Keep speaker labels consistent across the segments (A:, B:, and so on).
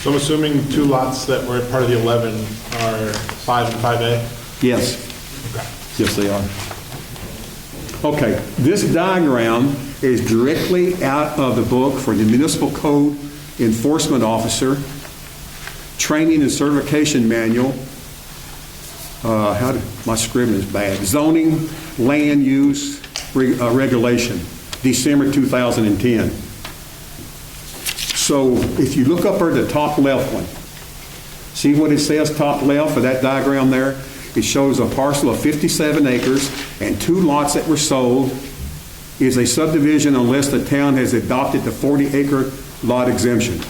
A: So I'm assuming two lots that were part of the 11 are 5 and 5A?
B: Yes. Yes, they are. Okay, this diagram is directly out of the book for the Municipal Code Enforcement Officer, Training and Certification Manual. Uh, How, did- my scribbling is bad. Zoning, Land Use Re- uh, Regulation, December 2010. So if you look up at the top left one, See what it says, top left of that diagram there? It shows a parcel of 57 acres and two lots that were sold is a subdivision unless the town has adopted the 40-acre lot exemption.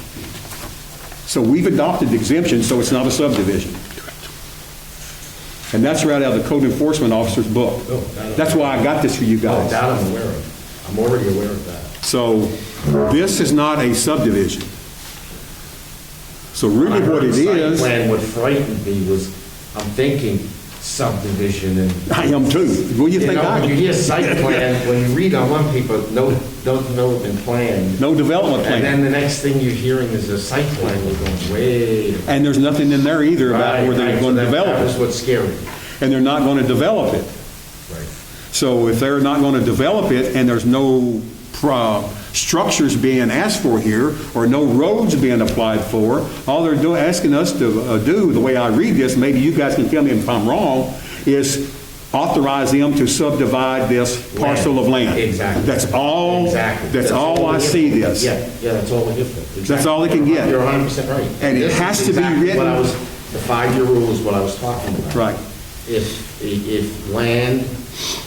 B: So we've adopted the exemption, so it's not a subdivision. And that's right out of the code enforcement officer's book.
C: Oh, that-
B: That's why I got this for you
C: Oh,
B: guys.
C: That I'm aware of. I'm already aware of that.
B: So this is not a subdivision. So really what it
C: Site
B: is,
C: Plan, what frightened me was, I'm thinking subdivision and.
B: I am too. What do you think
C: know,
B: I am?
C: when You hear site plan, when you read on one paper, no, no development plan.
B: No development
C: And
B: plan.
C: then the next thing you're hearing is a site plan, we're going, wait. a-
B: And there's nothing in there either about where
C: Right,
B: they're
C: right,
B: going
C: so
B: to
C: that- That was
B: develop it.
C: what's scary.
B: And they're not going to develop it.
C: Right.
B: So if they're not going to develop it and there's no pro- structures being asked for here or no roads being applied for, all they're doing, asking us to uh, do, the way I read this, maybe you guys can tell me if I'm wrong, is authorize them to subdivide this parcel of land.
C: Exactly.
B: That's all,
C: Exactly.
B: that's all I
C: we're here
B: see
C: for.
B: this.
C: Yeah, yeah, that's all we're here for. Exactly.
B: all they can get.
C: You're hundred percent right.
B: And it
C: This is
B: has to be
C: exactly
B: written-
C: what I was- The five-year rule is what I was talking about.
B: Right.
C: If, if land,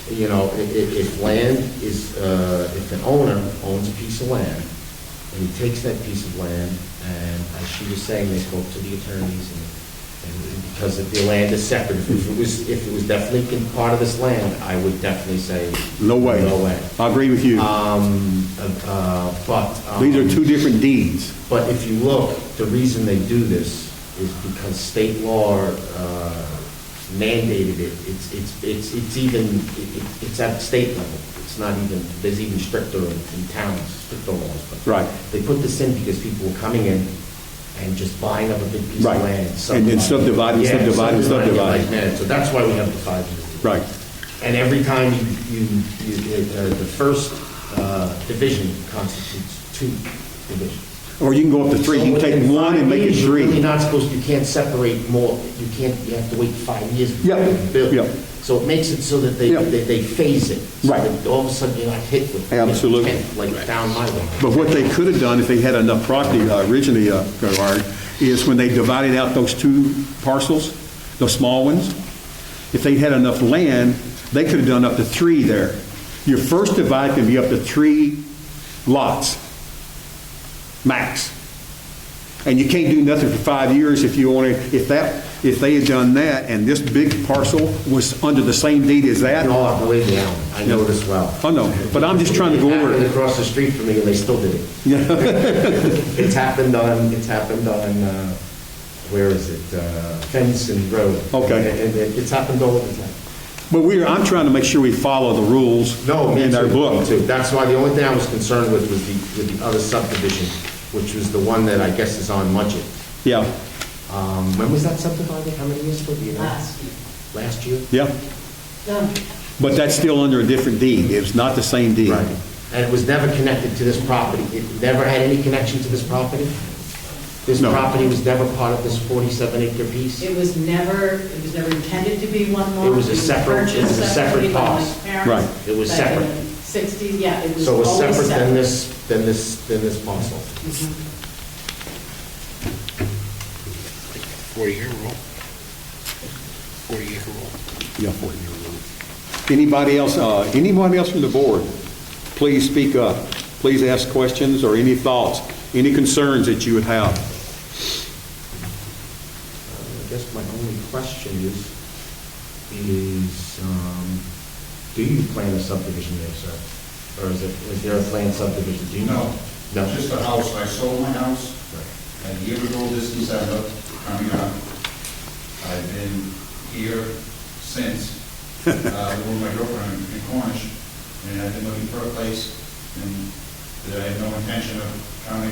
C: you know, if, if land is, uh, if an owner owns a piece of land, and he takes that piece of land, and as she was saying, they spoke to the attorneys, and, and because if the land is separate, if it was, if it was definitely part of this land, I would definitely say.
B: No way.
C: No way.
B: I agree with you.
C: Um, uh, but. um,
B: These are two different deeds.
C: But if you look, the reason they do this is because state law uh, mandated it. It's, it's, it's it's even, it- it- it's at state level. It's not even, there's even stricter in in towns, stricter laws. but
B: Right.
C: They put this in because people were coming in and just buying up a big piece of
B: Right.
C: land.
B: And then subdividing,
C: Yeah,
B: subdividing, subdividing.
C: like mad. So that's why we have the five years.
B: Right.
C: And every time you, you, you- uh, the first uh, division constitutes two divisions.
B: Or you can go up to three, you can
C: So
B: take
C: within
B: one and
C: five
B: make it
C: years, You're really
B: three.
C: not supposed, you can't separate more, you can't, you have to wait five years. before
B: Yeah,
C: you build.
B: yeah.
C: So it makes it so that they,
B: Yeah.
C: that they phase it. so
B: Right.
C: that All of a sudden, you're not hit with. you know,
B: Absolutely.
C: 10, Like down my way.
B: But what they could have done if they had enough property uh, originally, uh, Gerard, is when they divided out those two parcels, those small ones, if they had enough land, they could have done up to three there. Your first divide can be up to three lots, max. And you can't do nothing for five years if you only, if that, if they had done that and this big parcel was under the same deed as that,
C: No, I believe you, Alan. I know this well.
B: I know, but I'm just trying to go
C: It
B: over
C: happened
B: it.
C: across the street from me, and they still did it. It's happened on, it's happened on, uh, where is it? Uh, Fenson Road.
B: Okay.
C: And- And it- it's happened all over the time.
B: But we, are I'm trying to make sure we follow the rules
C: No, me
B: in our
C: too, me
B: book.
C: too. That's why the only thing I was concerned with was the, with the other subdivision, which was the one that I guess is on Mudgett.
B: Yeah,
C: Um, When was that subdivided? How many years ago, do you know?
D: Last year.
C: Last year?
B: yeah.
D: No,
B: But that's still under a different deed. It's not the same deed.
C: Right. And it was never connected to this property? It never had any connection to this property? This
B: No.
C: property was never part of this 47 acre piece?
D: it was never, it was never intended to be one lot.
C: It was a separate- it was a separate
D: purchased separately by my
C: cost.
D: parents
B: Right.
C: It was
D: back in
C: separate.
D: the 60s, yeah, it was
C: So it was
D: always
C: separate than
D: separate.
C: this, than this, than this parcel?
E: 40-year rule. 40-acre rule.
B: Yeah. Anybody else, uh, anybody else from the board, please speak up. Please ask questions or any thoughts, any concerns that you would have.
C: I guess my only question is, is, um, do you plan a subdivision there, sir? Or is it, is there a planned subdivision? Do you know?
F: No,
C: No.
F: just a house, I sold my house a year ago this December, coming up. I've been here since, uh, with my girlfriend in Cornish, and I've been looking for a place, and I had no intention of coming